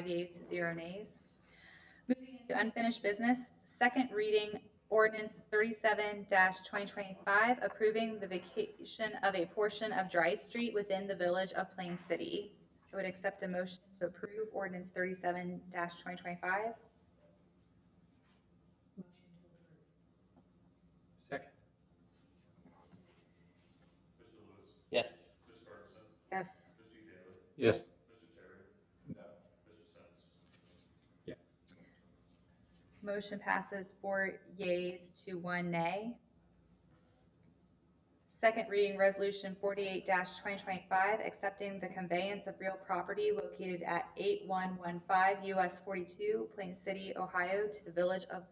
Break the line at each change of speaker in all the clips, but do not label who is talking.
Five yeas, zero nays. Moving into unfinished business, second reading ordinance thirty-seven twenty twenty-five, approving the vacation of a portion of Dry Street within the village of Plain City. I would accept a motion to approve ordinance thirty-seven twenty twenty-five.
Second.
Yes.
Yes.
Yes.
Yes.
Motion passes four yeas to one nay. Second reading resolution forty-eight twenty twenty-five, accepting the conveyance of real property located at eight one one five US forty-two, Plain City, Ohio, to the village of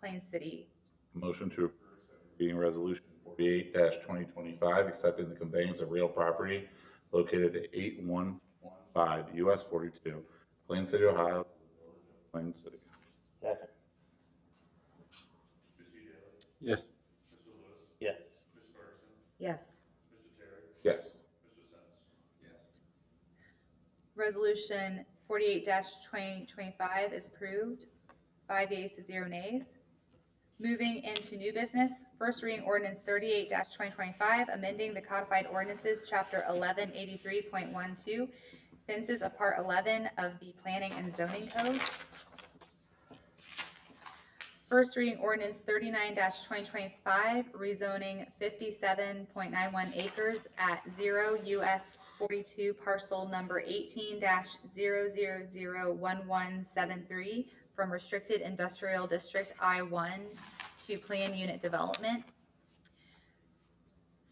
Plain City.
Motion to approve second reading resolution forty-eight twenty twenty-five, accepting the conveyance of real property located at eight one one five US forty-two, Plain City, Ohio, Plain City.
Second.
Yes.
Yes.
Yes.
Yes.
Resolution forty-eight twenty twenty-five is approved, five yeas to zero nays. Moving into new business, first reading ordinance thirty-eight twenty twenty-five, amending the codified ordinances, chapter eleven eighty-three point one-two, fences of part eleven of the planning and zoning code. First reading ordinance thirty-nine twenty twenty-five, rezoning fifty-seven point nine one acres at zero US forty-two parcel number eighteen 0 from restricted industrial district I one to plan unit development.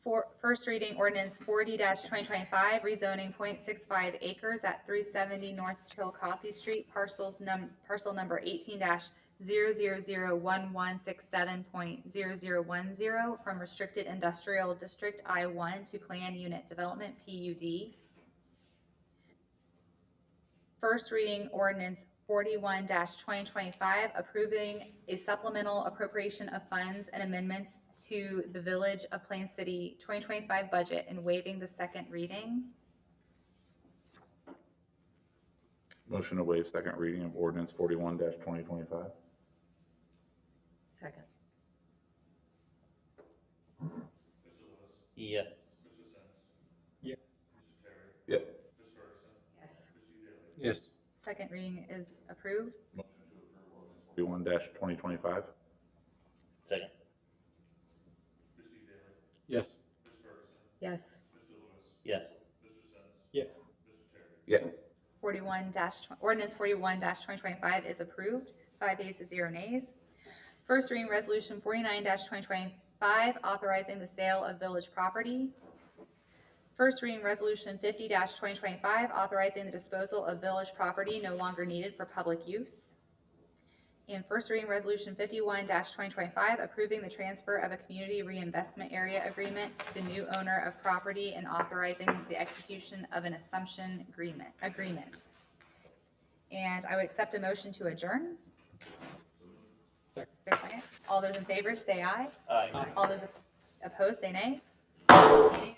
For, first reading ordinance forty twenty twenty-five, rezoning 0.65 acres at three seventy North Chillicothe Street, parcels num, parcel number eighteen 0 from restricted industrial district I one to plan unit development PUD. First reading ordinance forty-one twenty twenty-five, approving a supplemental appropriation of funds and amendments to the Village of Plain City twenty twenty-five budget and waiving the second reading.
Motion to waive second reading of ordinance forty-one twenty twenty-five.
Second.
Yes.
Yes.
Yes.
Yes.
Yes.
Second reading is approved.
Forty-one twenty twenty-five.
Second.
Yes.
Yes.
Yes.
Yes.
Yes.
Forty-one dash, ordinance forty-one twenty twenty-five is approved, five yeas to zero nays. First reading resolution forty-nine twenty twenty-five, authorizing the sale of village property. First reading resolution fifty twenty twenty-five, authorizing the disposal of village property no longer needed for public use. And first reading resolution fifty-one twenty twenty-five, approving the transfer of a community reinvestment area agreement to the new owner of property and authorizing the execution of an assumption agreement, agreement. And I would accept a motion to adjourn.
Second.
There's a second. All those in favor, say aye.
Aye.
All those opposed, say nay. Meeting